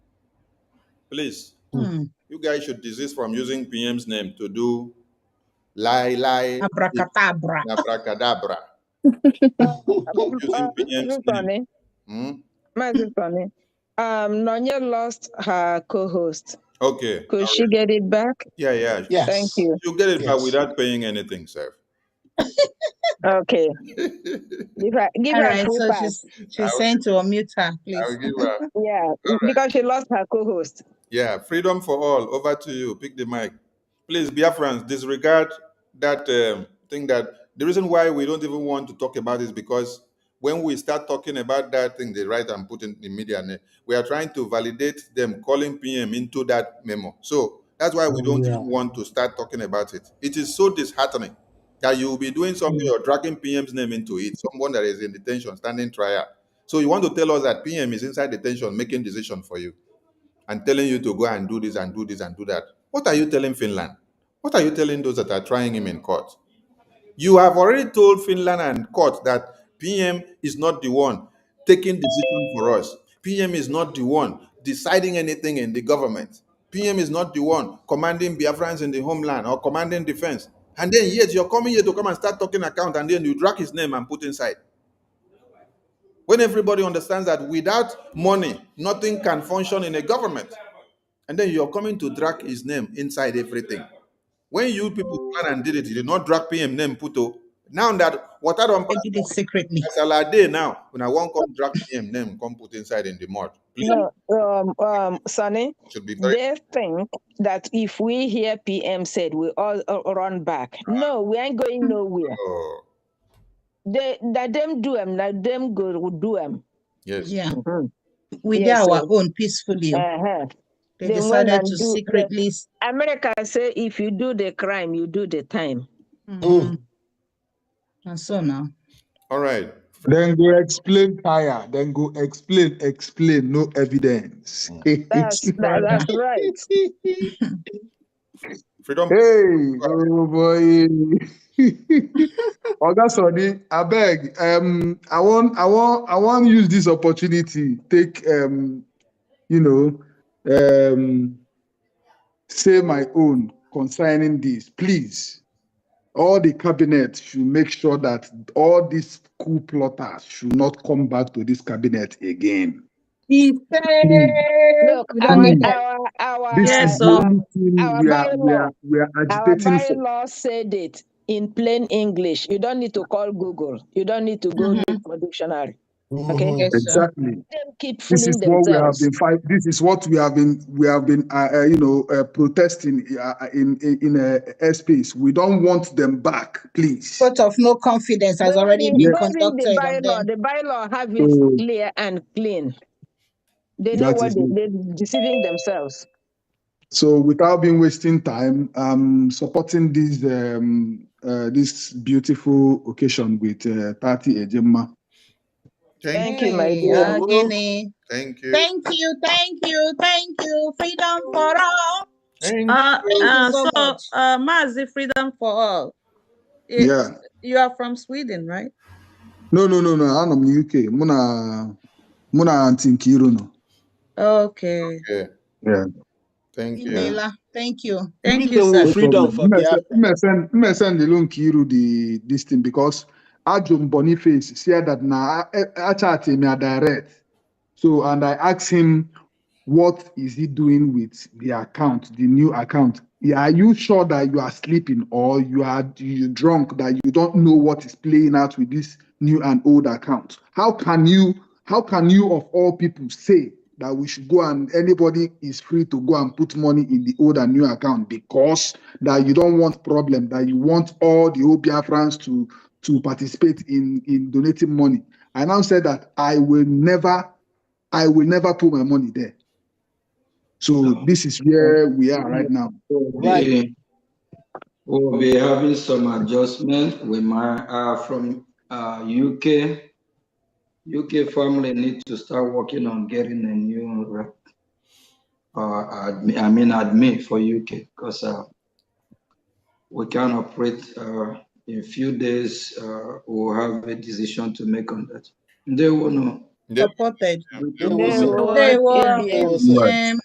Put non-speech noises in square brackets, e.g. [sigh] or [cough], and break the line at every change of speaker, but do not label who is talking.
Please,
Hmm.
you guys should desist from using PM's name to do lie, lie,
Abracadabra.
abracadabra. Stop using PM's name.
Maazị
Hmm?
Fani, um, Nonye lost her co-host.
Okay.
Could she get it back?
Yeah, yeah.
Yes.
Thank you.
You get it back
Yes.
without paying anything, sir.
Okay. Give her, give
All
her
right,
full
so
pass.
she's
I
she's
will-
saying to unmute her,
I'll
please.
give her.
Yeah,
right.
because she lost her co-host.
Yeah, freedom for all. Over to you. Pick the mic. Please, Biafrans, disregard that um, thing that the reason why we don't even want to talk about is because when we start talking about that thing they write and put in the media, and uh, we are trying to validate them calling PM into that memo. So that's why we don't
Yeah.
even want to start talking about it. It is so disheartening that you will be doing something or dragging PM's name into it, someone that is in detention, standing trial. So you want to tell us that PM is inside detention making decision for you and telling you to go and do this and do this and do that. What are you telling Finland? What are you telling those that are trying him in court? You have already told Finland and court that PM is not the one taking decision for us. PM is not the one deciding anything in the government. PM is not the one commanding Biafrans in the homeland or commanding defense. And then yet you're coming here to come and start talking account and then you drag his name and put inside when everybody understands that without money, nothing can function in a government. And then you're coming to drag his name inside everything. When you people plan and did it, you did not drag PM name Puto. Now that water don't
I did it secretly.
pass a day now, when I won't come drag PM name, come put inside in the mud. Please,
No, um, um, Sonny,
should be very
they think that if we hear PM said, we all uh, run back. No, we ain't going nowhere.
oh,
They, that them do them, that them go do them.
yes.
Yeah,
Mhm.
we did
Yes,
our
so-
own peacefully.
Uh-huh.
They
they went
decided
and
to
do- they-
secretly. s-
America say if you do the crime, you do the time.
Mhm. And so now,
All right.
Then go explain tire. Then go explain, explain, no evidence.
That's
[laughs]
that, that's right.
hey,
Freedom.
oh boy. Oga Sunny, I beg. Um, I want, I want, I want use this opportunity. Take um, you know, um, say my own concerning this, please. All the cabinet should make sure that all these coup plotters should not come back to this cabinet again.
he said,
Look, our
Mm.
our our,
This
Yes,
is the
sir.
only thing
Our
we are, we are, we are
our
agitating for.
bylaw said it in plain English. You don't need to call Google. You don't need to go
Mm-hmm.
look for dictionary. Okay.
yes, sir.
Exactly.
Them keep
This is
fooling
what we have
themselves.
been fight. This is what we have been we have been uh, uh, you know uh, protesting uh, uh, in in, in uh, airspace. We don't want them back, please.
Vote of no confidence has already
Go
been
read- go read the
conducted on them.
bylaw. The bylaw have it
So
clear and clean. They know
Oh. that
what
is
they,
it.
they're deceiving themselves.
So without being wasting time, um, supporting this um, uh, this beautiful occasion with uh, Tati Ejema.
Thank,
Thank you, my
Hey,
dear.
Ogini.
thank you.
Thank you, thank you, thank you. Freedom for all.
Thank
Uh,
Thank you
uh,
so
so,
much.
uh, Mazi, freedom for all. It-
Yeah.
You are from Sweden, right?
No, no, no, no. Anọ m UK. Mụ na mụ na Aunty Nkiru nọ.
Okay.
you.
Yeah.
Thank you.
Imeela, thank you.
Thank you,
Freedom,
sir.
freedom for Biafra.
Mmesend ilu Nkiru the this thing because Ajum Boniface said that na achati me direct. So and I asked him what is he doing with the account, the new account. Yeah, are you sure that you are sleeping or you are you drunk that you don't know what is playing out with this new and old account? How can you how can you of all people say that we should go and anybody is free to go and put money in the old and new account because that you don't want problem, that you want all the old Biafrans to to participate in in donating money. I now said that I will never I will never put my money there. So this is where we are right now.
We'll be- we'll be having some adjustment. We might, uh, from, uh, UK. UK family need to start working on getting a new rep. Uh, admin, I mean, admin for UK, because, uh, we can operate, uh, in few days, uh, we'll have a decision to make on that. They will know.
Yep.
Supported.
Yep.
They will
They
know.
will-
They
yeah.
were
It was, uh,
um,